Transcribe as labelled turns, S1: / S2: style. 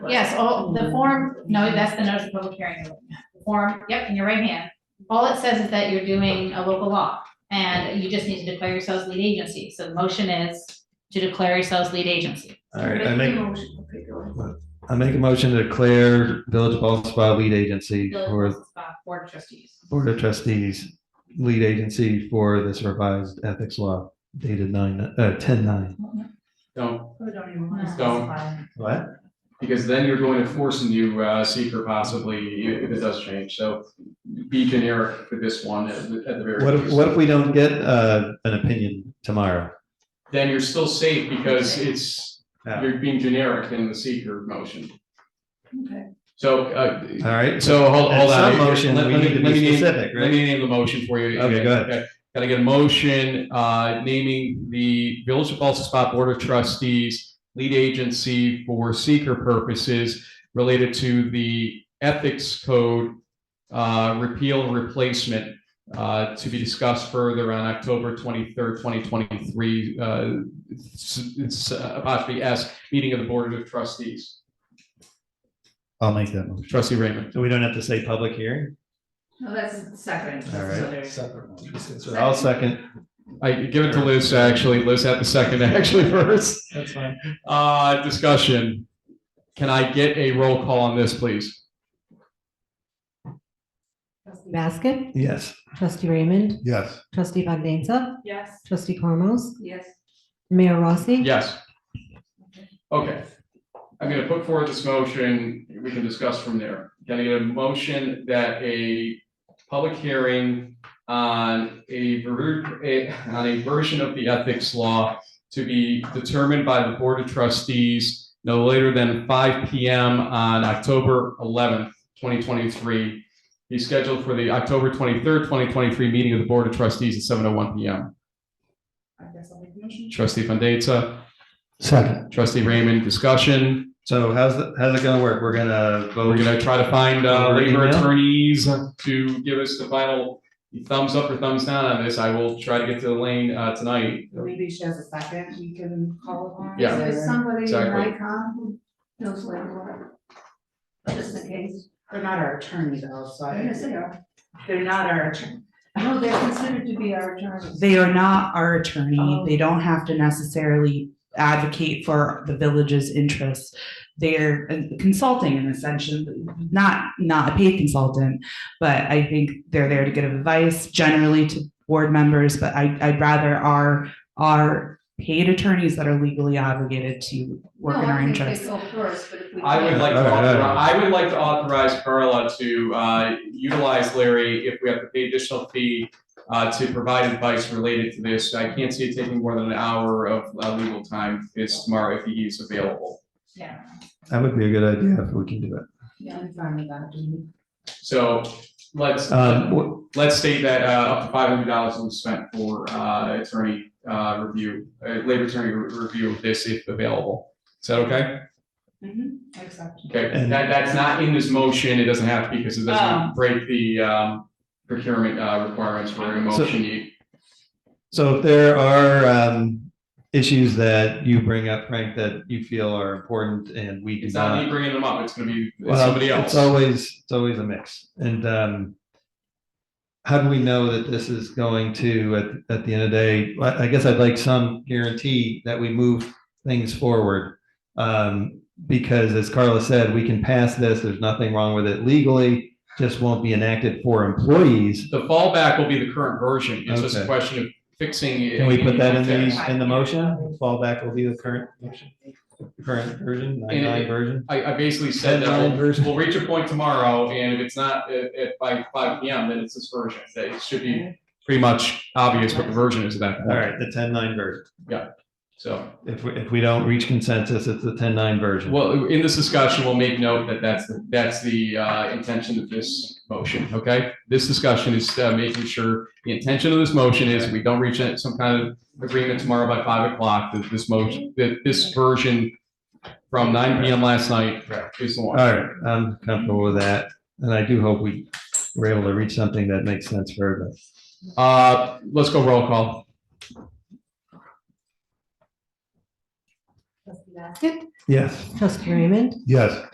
S1: Yes, all,
S2: Mm-hmm.
S3: Mm-hmm.
S1: the form, no, that's the notice of public hearing. The Form, yep, in your right hand. All it says is that you're doing a local law, and you just need to declare yourselves lead agency. So the motion is to declare yourselves lead agency.
S4: All right, I make, I make a motion to declare Village of Bald Spa lead agency
S1: Village
S4: for
S1: of Scott Uh, Board of trustees.
S4: Board of Trustees, lead agency for this revised ethics law dated nine, uh, ten nine.
S2: Don't,
S4: What?
S2: because then you're going to force a new uh, seeker possibly if it does change. So be generic for this one at the at the very
S4: What if,
S2: least.
S4: what if we don't get, uh, an opinion tomorrow?
S2: Then you're still safe because it's,
S4: Yeah.
S2: you're being generic in the seeker motion.
S3: Okay.
S2: So, uh,
S4: All right,
S2: so hold,
S4: At
S2: hold on.
S4: some motion,
S2: Let-
S4: we
S2: let me-
S4: need to be
S2: let me name-
S4: specific,
S2: Let
S4: right?
S2: me name the motion for you.
S4: Okay, go ahead.
S2: Gotta get a motion, uh, naming the Village of Balsas Spa Board of Trustees lead agency for seeker purposes related to the ethics code, uh, repeal and replacement, uh, to be discussed further on October twenty-third, twenty twenty-three, uh, s- it's uh, apostrophe S, meeting of the Board of Trustees.
S4: I'll make that motion.
S2: Trustee Raymond.
S4: So we don't have to say public hearing?
S3: No, that's second.
S4: All
S3: So
S4: right.
S3: there's-
S4: So I'll second.
S2: I give it to Liz, actually. Liz had the second actually first.
S4: That's fine.
S2: Uh, discussion. Can I get a roll call on this, please?
S5: Trustee Baskin?
S4: Yes.
S5: Trustee Raymond?
S4: Yes.
S5: Trustee Bogdanza?
S3: Yes.
S5: Trustee Cormos?
S3: Yes.
S5: Mayor Rossi?
S2: Yes. Okay. I'm gonna put forward this motion. We can discuss from there. Can I get a motion that a public hearing on a ver- a- on a version of the ethics law to be determined by the Board of Trustees no later than five P M on October eleventh, twenty twenty-three. Be scheduled for the October twenty-third, twenty twenty-three meeting of the Board of Trustees at seven oh one P M.
S3: I guess I'll make a motion.
S2: Trustee Fandesa.
S4: Second.
S2: Trustee Raymond, discussion.
S4: So how's, the- how's it gonna work? We're gonna
S2: We're
S4: vote.
S2: gonna try to find uh,
S4: Over
S2: labor
S4: email?
S2: attorneys to give us the final thumbs up or thumbs down on this. I will try to get to Elaine uh, tonight.
S6: Maybe she has a second, we can call upon.
S2: Yeah.
S3: Is there somebody in
S2: Exactly.
S3: Nikon who knows landlord? Just in case.
S6: They're not our attorney though, so I,
S3: Yes, they are.
S6: they're not our attorney.
S3: No, they're considered to be our attorneys.
S6: They are not our attorney.
S3: Oh.
S6: They don't have to necessarily advocate for the village's interests. They're consulting in a sense, not, not a paid consultant, but I think they're there to give advice generally to board members, but I, I'd rather our, our paid attorneys that are legally obligated to work in
S3: No, I
S6: our
S3: think they
S6: interests.
S3: go first, but if we
S2: I would
S3: can't-
S2: like to
S4: All right, all
S2: authorize,
S4: right.
S2: I would like to authorize Carla to uh, utilize Larry if we have to pay additional fee uh, to provide advice related to this. I can't see it taking more than an hour of uh, legal time is tomorrow if he is available.
S1: Yeah.
S4: That would be a good idea if we can do it.
S6: Yeah, I'm fine with that.
S2: So let's.
S4: Um, wh-
S2: let's state that uh up to five hundred dollars will be spent for uh attorney uh review, uh labor attorney re- review of this if available. Is that okay?
S6: Mm-hmm, accept.
S2: Okay,
S4: And-
S2: that that's not in this motion, it doesn't have to because it
S6: Oh.
S2: doesn't break the um procurement uh requirements for a
S4: So-
S2: motion. You-
S4: So if there are um issues that you bring up, Frank, that you feel are important and we do
S2: It's not me
S4: not.
S2: bringing them up, it's gonna be it's
S4: uh, Well,
S2: somebody else.
S4: It's always, it's always a mix. And um how do we know that this is going to, at at the end of the day, I I guess I'd like some guarantee that we move things forward. Um because as Carla said, we can pass this, there's nothing wrong with it legally, just won't be enacted for employees.
S2: The fallback will be the current version. It's just a
S4: Okay.
S2: question of fixing. it
S4: Can we put that in
S2: there?
S4: the, in the motion? Fallback will be the current motion? current version, nine nine version.
S2: I, I basically said that
S4: Headline version.
S2: we'll, we'll reach a point tomorrow, and if it's not at, at by five P M, then it's this version, that it should be pretty much obvious what the version is at that
S4: All
S2: point.
S4: right, the ten nine version.
S2: So,
S4: If we, if we don't reach consensus, it's the ten nine version.
S2: well, in this discussion, we'll make note that that's, the that's the, uh, intention of this motion, okay? This discussion is, uh, making sure the intention of this motion is we don't reach a- some kind of agreement tomorrow by five o'clock, that this motion, that this version from nine P M last night is the
S4: All
S2: one.
S4: right, I'm comfortable with that, and I do hope we were able to reach something that makes sense for everybody.
S2: Uh, let's go roll call.
S5: Trustee Baskin?
S4: Yes.
S5: Trustee Raymond?
S4: Yes.